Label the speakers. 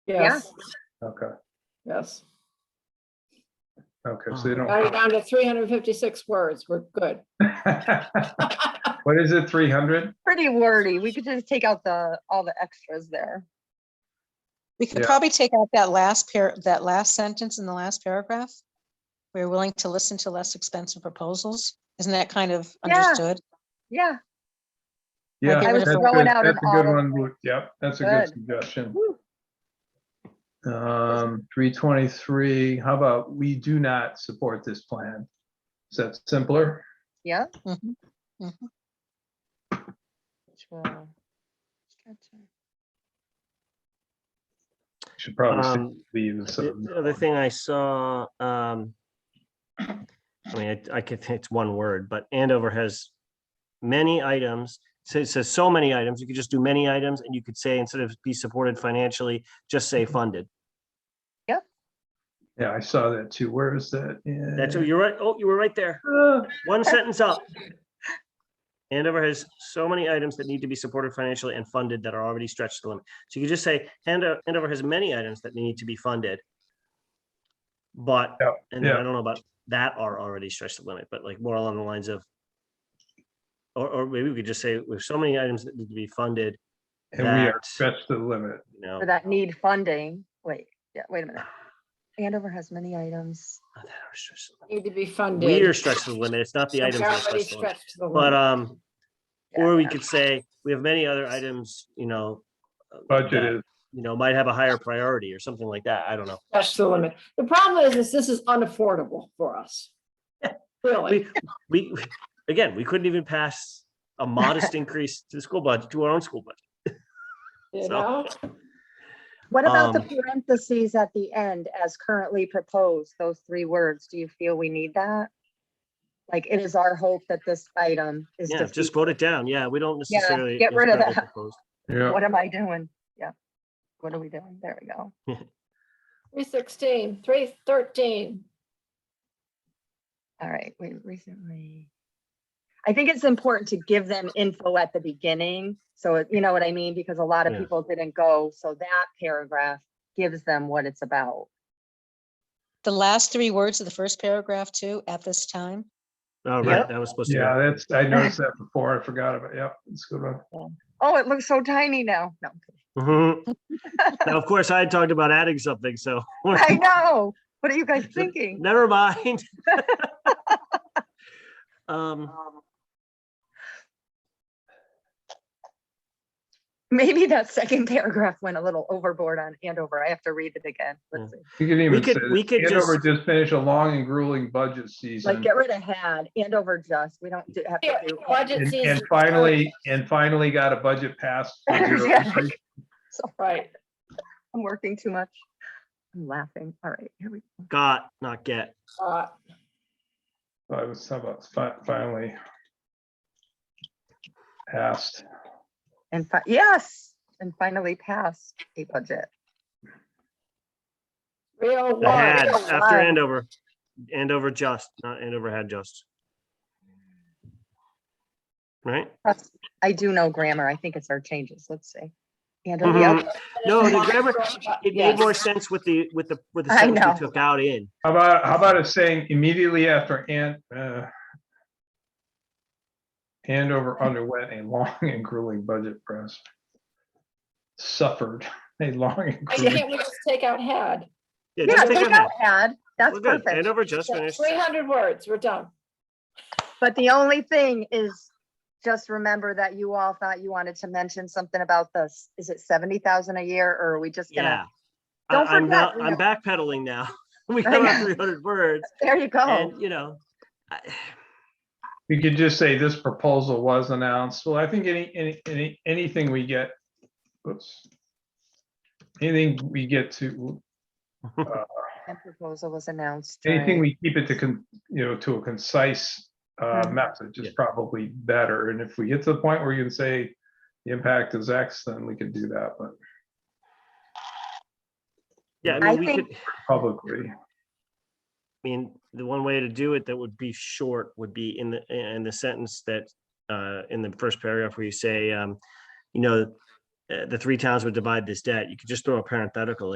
Speaker 1: Yes,
Speaker 2: Okay,
Speaker 1: yes.
Speaker 2: okay, so they
Speaker 1: Got it
Speaker 2: don't.
Speaker 1: down to three hundred and fifty-six words. We're good.
Speaker 2: What is it, three hundred?
Speaker 3: Pretty wordy. We could just take out the, all the extras there.
Speaker 4: We could
Speaker 2: Yeah.
Speaker 4: probably take out that last pair, that last sentence in the last paragraph. We're willing to listen to less expensive proposals. Isn't that kind of
Speaker 3: Yeah.
Speaker 4: understood?
Speaker 3: Yeah,
Speaker 2: Yeah,
Speaker 4: I was
Speaker 2: that's
Speaker 3: throwing
Speaker 2: good.
Speaker 3: out an
Speaker 2: That's a good
Speaker 3: auto-
Speaker 2: one. Luke. Yep, that's a good
Speaker 3: Good.
Speaker 2: suggestion.
Speaker 3: Woo.
Speaker 2: Um, three twenty-three, how about we do not support this plan? Is that simpler?
Speaker 3: yeah.
Speaker 4: Mhm.
Speaker 3: Which will-
Speaker 2: Should probably say
Speaker 5: Um,
Speaker 2: leave. so-
Speaker 5: The the other thing I saw, um, I mean, it- I could, it's one word, but Andover has many items. So it says so many items, you could just do many items and you could say, instead of be supported financially, just say funded.
Speaker 2: Yeah, I saw that too. Where is that?
Speaker 5: That's,
Speaker 2: Yeah.
Speaker 5: you're right. Oh, you were right there.
Speaker 2: Uh,
Speaker 5: One sentence up. Andover has so many items that need to be supported financially and funded that are already stretched to the limit. So you could just say, Ando- Andover has many items that need to be funded. But,
Speaker 2: Yeah,
Speaker 5: and then I
Speaker 2: yeah.
Speaker 5: don't know about that are already stretched to the limit, but like more along the lines of. Or, or maybe we could just say, with so many items that need to be funded,
Speaker 2: And we are
Speaker 5: That-
Speaker 2: stretched to the limit.
Speaker 5: you know.
Speaker 3: Or That need funding. Wait, yeah, wait a minute. Andover has many items.
Speaker 5: not that are stretched to the
Speaker 1: Need to be
Speaker 5: limit. We are
Speaker 1: funded.
Speaker 5: stretched to the limit. It's not the items. that are
Speaker 1: Already
Speaker 5: stretched to the limit.
Speaker 1: stretched to the limit.
Speaker 5: But, um,
Speaker 3: Yeah,
Speaker 5: or we
Speaker 3: yeah.
Speaker 5: could say, we have many other items, you know. uh,
Speaker 2: Budget
Speaker 5: that-
Speaker 2: is,
Speaker 5: you know, might have a higher priority or something like that. I don't know.
Speaker 1: Stretched to the limit. The problem is, is this is unaffordable for us. Really,
Speaker 5: We, we, again, we couldn't even pass a modest increase to the school budget, to our own school budget.
Speaker 1: you
Speaker 5: so-
Speaker 1: know?
Speaker 3: What about the
Speaker 5: um,
Speaker 3: parentheses at the end as currently proposed, those three words? Do you feel we need that? Like, it is our hope that this item is
Speaker 5: Yeah,
Speaker 3: defeated.
Speaker 5: just vote it down. Yeah, we don't
Speaker 3: Yeah,
Speaker 5: necessarily.
Speaker 3: get rid of
Speaker 5: necessarily
Speaker 3: that.
Speaker 5: propose.
Speaker 2: yeah,
Speaker 3: What am I doing? Yeah. What are we doing? There we go.
Speaker 1: Three sixteen, three thirteen.
Speaker 3: All right, we recently. I think it's important to give them info at the beginning. So it- you know what I mean? Because a lot of
Speaker 5: Yeah.
Speaker 3: people didn't go. So that paragraph gives them what it's about.
Speaker 4: The last three words of the first paragraph too, at this time.
Speaker 5: Oh,
Speaker 3: Yep.
Speaker 5: right, that was supposed to.
Speaker 2: yeah,
Speaker 5: go.
Speaker 2: that's, I noticed that before. I forgot about, yep, it's a good one.
Speaker 3: Oh, it looks so tiny now. No. I'm kidding.
Speaker 5: Mhm. Now, of course, I had talked about adding something, so.
Speaker 3: I know. What are you guys thinking?
Speaker 5: Never mind. Um,
Speaker 3: Maybe that second paragraph went a little overboard on Andover. I have to read it again. Let's see.
Speaker 2: You could even say,
Speaker 5: could- we
Speaker 2: that
Speaker 5: could
Speaker 2: Andover
Speaker 5: just-
Speaker 2: just finished a long and grueling budget
Speaker 3: Like,
Speaker 2: season.
Speaker 3: get rid of had, Andover just, we don't do- have
Speaker 1: Here,
Speaker 3: to do.
Speaker 1: budget
Speaker 2: And
Speaker 1: season.
Speaker 2: and finally, and finally got a budget passed. for zero
Speaker 3: Yeah.
Speaker 2: inflation.
Speaker 1: Right,
Speaker 3: I'm working too much. I'm laughing. All right, here we go.
Speaker 5: got, not get.
Speaker 1: uh,
Speaker 2: So I was talking about fi- finally passed.
Speaker 3: And fi- yes, and finally passed a budget.
Speaker 1: real
Speaker 5: I Had,
Speaker 3: that's a
Speaker 5: after
Speaker 3: lot.
Speaker 5: Andover, Andover just, not Andover had just. Right?
Speaker 3: That's- I do know grammar. I think it's our changes. Let's see. And
Speaker 5: Mhm.
Speaker 3: yep,
Speaker 5: No, the grammar, it made more
Speaker 1: Yes.
Speaker 5: sense with the, with the, with the
Speaker 3: I
Speaker 5: sentence
Speaker 3: know.
Speaker 5: we took out in.
Speaker 2: How about, how about it saying immediately after and, uh, Andover underwent a long and grueling budget press. Suffered a long and
Speaker 1: I
Speaker 2: grueling,
Speaker 1: can't we just take out had?
Speaker 5: Yeah,
Speaker 3: yeah,
Speaker 5: just take
Speaker 3: take
Speaker 5: it out.
Speaker 3: out had. That's
Speaker 5: We're good.
Speaker 3: perfect.
Speaker 5: Andover just finished.
Speaker 1: Three hundred words, we're done.
Speaker 3: But the only thing is just remember that you all thought you wanted to mention something about this. Is it seventy thousand a year or are we just
Speaker 5: Yeah.
Speaker 3: gonna?
Speaker 5: I-
Speaker 3: Don't
Speaker 5: I'm
Speaker 3: forget,
Speaker 5: not,
Speaker 3: we
Speaker 5: I'm backpedaling now. We have
Speaker 3: know. Oh.
Speaker 5: our three hundred words
Speaker 3: There you go.
Speaker 5: and, you know. I-
Speaker 2: you could just say this proposal was announced, well, I think any, any, any, anything we get, oops. Anything we get to,
Speaker 3: And proposal was announced.
Speaker 2: Anything
Speaker 3: during-
Speaker 2: we keep it to, con you know, to a concise uh,
Speaker 3: Mhm.
Speaker 2: message is
Speaker 5: Yeah.
Speaker 2: probably better. And if we get to the point where you can say the impact is X, then we can do that, but
Speaker 5: Yeah,
Speaker 3: I
Speaker 5: I mean, we
Speaker 3: think-
Speaker 5: could, I
Speaker 2: publicly.
Speaker 5: mean, the one way to do it that would be short would be in the, in the sentence that, uh, in the first paragraph where you say, um, you know, uh, the three towns would divide this debt. You could just throw a parenthetical